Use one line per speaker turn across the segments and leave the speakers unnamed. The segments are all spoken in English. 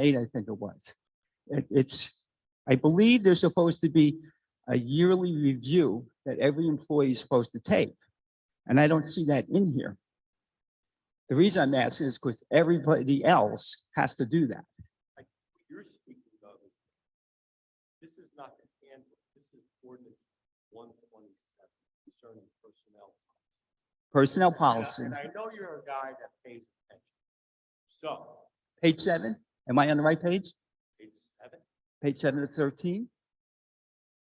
eight, I think it was. It- it's, I believe there's supposed to be a yearly review that every employee is supposed to take. And I don't see that in here. The reason I'm asking is because everybody else has to do that.
What you're speaking of is, this is not the handbook, this is ordinance one twenty-seven concerning personnel.
Personnel
And I-
policy,
And I know you're a guy that pays attention. So,
page seven, am I on the right page?
page seven,
Page seven to thirteen?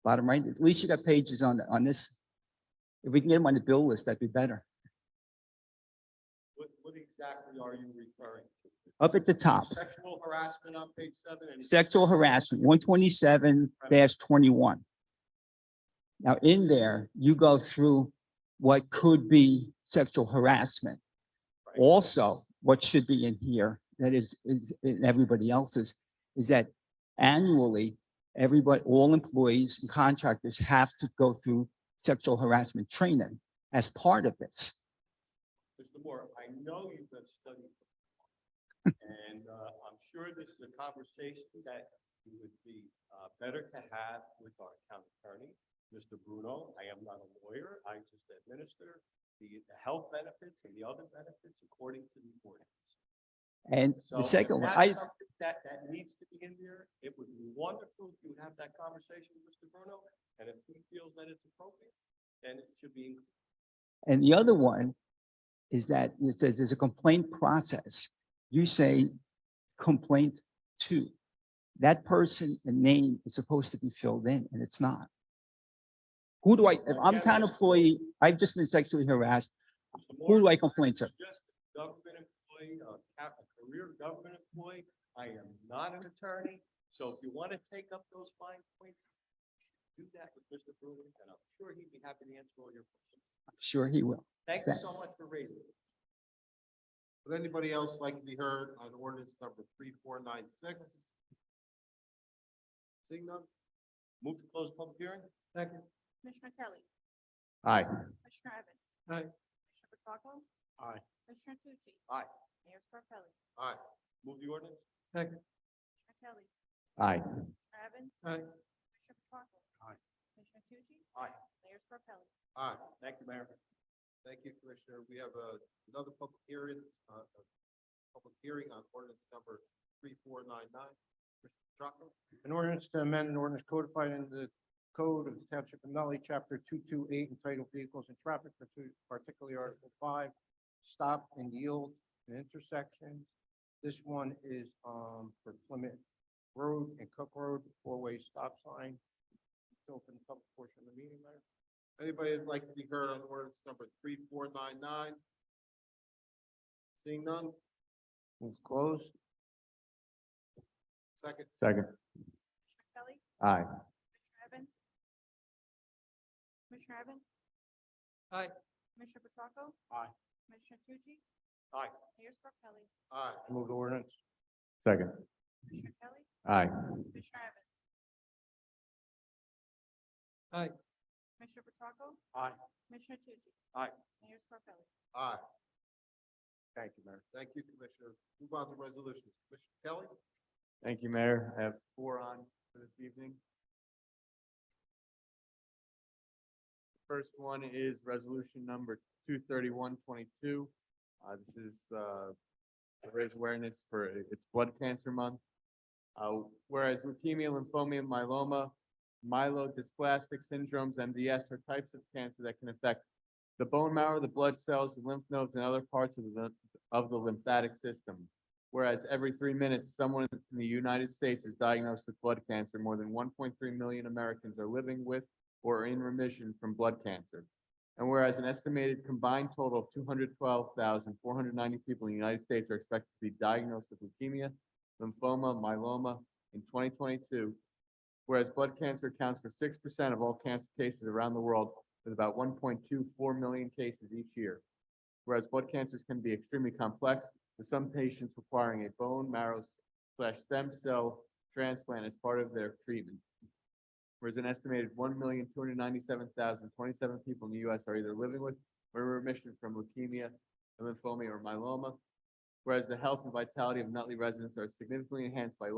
Bottom right, at least you got pages on, on this. If we can get them on the bill list, that'd be better.
what, what exactly are you referring to?
Up at the top.
Sexual harassment on page seven and.
sexual harassment, one twenty-seven twenty-one. Now, in there, you go through what could be sexual harassment.
Right.
Also, what should be in here, that is, is- in everybody else's, is that annually, everybody, all employees and contractors have to go through sexual harassment training as part of this.
Mr. Moore, I know you have studied. And uh, I'm sure this is a conversation that it would be uh, better to have with our town attorney, Mr. Bruno. I am not a lawyer. I just administer the the health benefits and the other benefits according to the ordinance.
And
So
the
if
second one,
that's
I,
something That, that needs to be in there. It would be wonderful if you would have that conversation with Mr. Bruno. And if he feels that it's appropriate, then it should be included.
And the other one is that it says there's a complaint process. You say complaint to. That person and name is supposed to be filled in and it's not. Who do I, if I'm town employee, I've just been sexually harassed,
Mr.
who
Moore,
do I complain to?
It's just a government employee, a ca- a career government employee. I am not an attorney, so if you want to take up those fine points, do that with Mr. Bruin, and I'm sure he'd be happy to answer all your questions.
I'm Sure he will.
Thank you
Thank-
so much for raising it.
Would anybody else like to be heard on ordinance number three, four, nine, six? Seeing none?
Move to close public hearing? Second.
Commissioner Kelly.
Aye.
Commissioner Evans.
Aye.
Commissioner Petracca.
Aye.
Commissioner Tucci.
Aye.
Mayor Scarpelli.
Aye.
Move the ordinance?
Commissioner Kelly.
Aye.
Commissioner Evans.
Aye.
Commissioner Petracca.
Aye.
Commissioner Tucci.
Aye.
Mayor Scarpelli.
Aye.
Thank you, Mayor.
Thank you, Commissioner. We have uh, another public hearing, uh, uh, public hearing on ordinance number three, four, nine, nine. Commissioner Petracca?
An ordinance to amend an ordinance codified in the code of the township of Nutley, chapter two-two-eight entitled Vehicles and Traffic, partic- particularly Article five, stop and yield in intersections. This one is, um, for Plymouth Road and Cook Road, four-way stop sign. It's Open the public portion of the meeting, Mayor.
Anybody that'd like to be heard on ordinance number three, four, nine, nine? Seeing none?
Move closed.
Second?
Second.
Commissioner Kelly.
Aye.
Commissioner Evans. Commissioner Evans.
Aye.
Commissioner Petracca.
Aye.
Commissioner Tucci.
Aye.
Mayor Scarpelli.
Aye.
Move the ordinance. Second.
Commissioner Kelly.
Aye.
Commissioner Evans.
Aye.
Commissioner Petracca.
Aye.
Commissioner Tucci.
Aye.
Mayor Scarpelli.
Aye.
Thank you, Mayor.
Thank you, Commissioner. Move on to resolutions. Commissioner Kelly?
Thank you, Mayor. I have four on for this evening. First one is resolution number two thirty-one twenty-two. Uh, this is, uh, to raise awareness for, it's blood cancer month. Uh, whereas leukemia, lymphoma, and myeloma, myelodysplastic syndromes, MDS, are types of cancer that can affect the bone marrow, the blood cells, the lymph nodes, and other parts of the, of the lymphatic system. Whereas every three minutes, someone in the United States is diagnosed with blood cancer, more than one point three million Americans are living with or are in remission from blood cancer. And whereas an estimated combined total of two hundred twelve thousand four hundred ninety people in the United States are expected to be diagnosed with leukemia, lymphoma, myeloma in twenty twenty-two. Whereas blood cancer accounts for six percent of all cancer cases around the world, with about one point two four million cases each year. Whereas blood cancers can be extremely complex, with some patients requiring a bone marrow slash stem cell transplant as part of their treatment. Whereas an estimated one million two hundred ninety-seven thousand twenty-seven people in the US are either living with or in remission from leukemia, lymphoma, or myeloma. Whereas the health and vitality of Nutley residents are significantly enhanced by